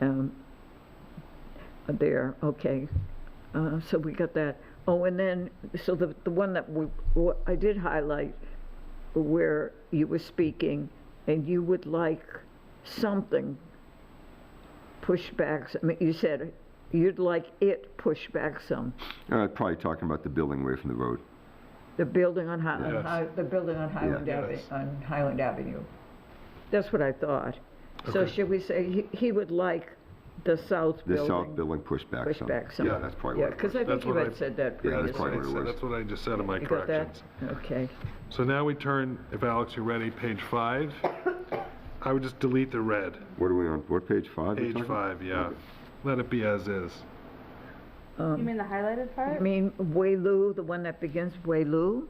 um, uh, there, okay. Uh, So we got that. Oh, and then, so the, the one that we, what I did highlight where you were speaking and you would like something pushbacks, I mean, you said you'd like it pushed back some, Uh, Probably talking about the building away from the road. the building on Hi, on Yes. Hi- the building on Highland Yeah. Avenue, Yes. on Highland Avenue. That's what I thought. So Okay. should we say he, he would like the south The building? south building pushed back some. Pushback some. Yeah, that's probably Yeah, what it because was. I think That's you what I- had said that Yeah, previously. that's probably what it So was. That's what I just said in my You got that? corrections. Okay. So now we turn, if Alex, you're ready, page five. I would just delete the red, What are we on, what page, five? we're page talking? five, yeah. Let it be as is. You mean the highlighted I part? mean, Waylu, the one that begins Waylu?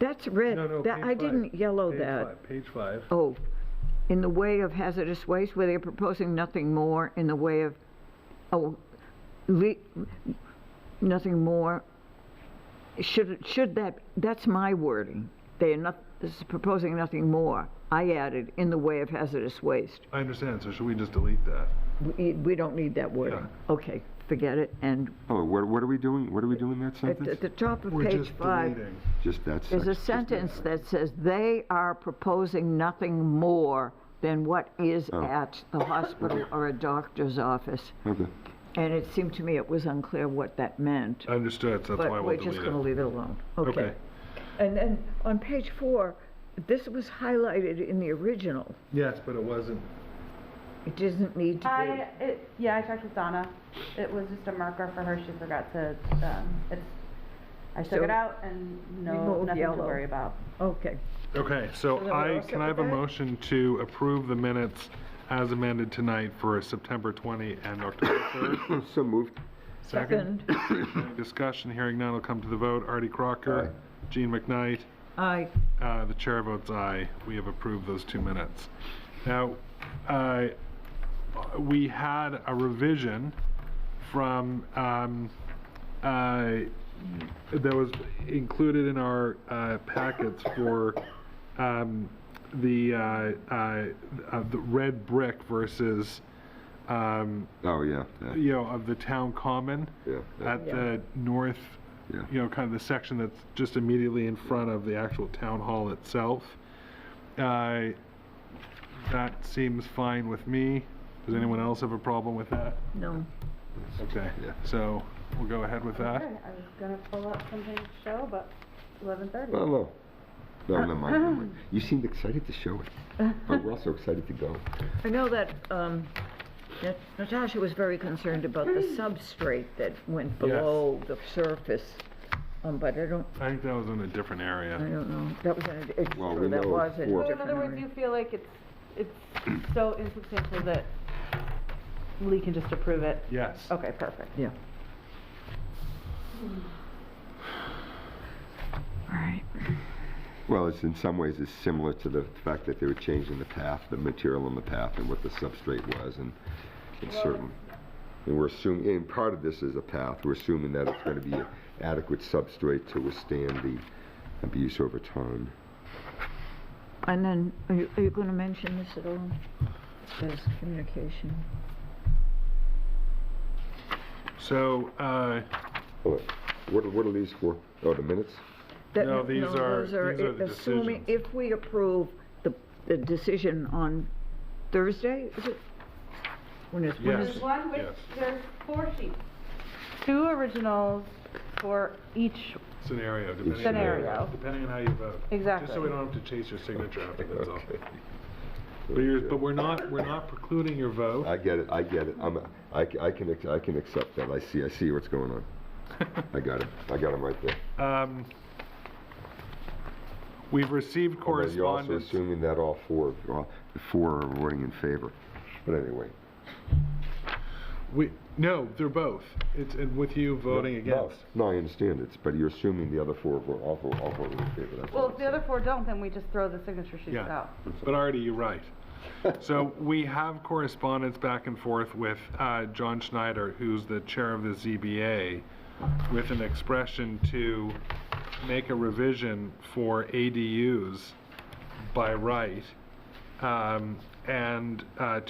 That's red. No, no, That- page I five. didn't yellow Page that. five, Page five. Oh, in the way of hazardous waste, where they're proposing nothing more in the way of, oh, le, nothing more. Should, should that, that's my wording. They are not, this is proposing nothing more. I added, in the way of hazardous waste. I understand, so should we just delete that? We, we don't need that wording. Okay, forget it, and Oh, what, what are we doing, what are we doing in that at the- sentence? the top of We're page just five, deleting. Just that section. There's a sentence that says, "They are proposing nothing more than what is at a hospital or a doctor's office." Okay, And it seemed to me it was unclear what that meant, Understood, so that's why but we're we'll just delete going to it. leave it alone. Okay. Okay. And then on page four, this was highlighted in the original. Yes, but it wasn't. It doesn't need I, to it, yeah, I checked with Donna. It was just a marker for her. She forgot to, um, it's, I took it So, out and no, remove nothing to yellow. worry about. be. Okay. Okay, so So then we're all I, set can I with have a that? motion to approve the minutes as amended tonight for September 20 and October 3rd? so moved. Second? Any Discussion, hearing none, will come to the vote. Artie Crocker, Gene McKnight, I, Uh, The chair votes aye. We have approved those two minutes. Now, uh, we had a revision from, um, uh, that was included in our uh, packets for um, the, uh, uh, uh, the red brick versus, um, Oh, yeah, yeah, you know, of the town common yeah, yeah, at the north yeah. you know, kind of the section that's just immediately in front of the actual town hall itself. Uh, That seems fine with me. Does anyone else have a problem with that? no. Okay, Yeah. so we'll go ahead with Okay, that. I was gonna pull up something to show, but eleven thirty. Well, no, no, never mind, never mind. You seemed excited to show it, but we're also excited to go. I know that um, Nat- Natasha was very concerned about the substrate that went below the surface, um, but I don't, I think that was in a different I area. don't know, that was, in a- it's Well, true, we that know was in a for- So So in different other words, you area. feel like it's, it's so insubstantial that Lee can just approve it? Yes. Okay, perfect. Yeah. All right. Well, it's in some ways it's similar to the fact that they were changing the path, the material on the path and what the substrate was and it's certain. And we're assuming, and part of this is a path, we're assuming that it's gonna be an adequate substrate to withstand the abuse over time. And then, are you, are you gonna mention this at all? As communication? So, uh, Oh, What, are- what are these for? Oh, the minutes? That- No, these are- those these are the Assuming, decisions. if we approve the, the decision on Thursday, is it? When is, when Yes. is? one with- Yes. there's four sheets. Two originals for each, scenario, depending. Scenario. Depending on how you vote. Just so Exactly. we don't have to chase your signature after, that's all. Okay. But you're, but we're not, we're not precluding your vote. I get it, I get it. I'm, I, c- I can, ac- I can accept that. I see, I see what's going on. I got it. I got him right there. Um, We've received Although You're also correspondence. assuming that all four, all four are voting in favor. But anyway. We, no, they're both. It's, and with you voting No, against. No, I understand it, but you're assuming the other four were all, vo- all voted in favor. that's all well, I'm if the other saying. four don't, then we just throw the signature sheets Yeah. out. But already, you're right. So we have correspondence back and forth with uh, John Schneider, who's the chair of the ZBA, with an expression to make a revision for ADUs by right, um, and uh,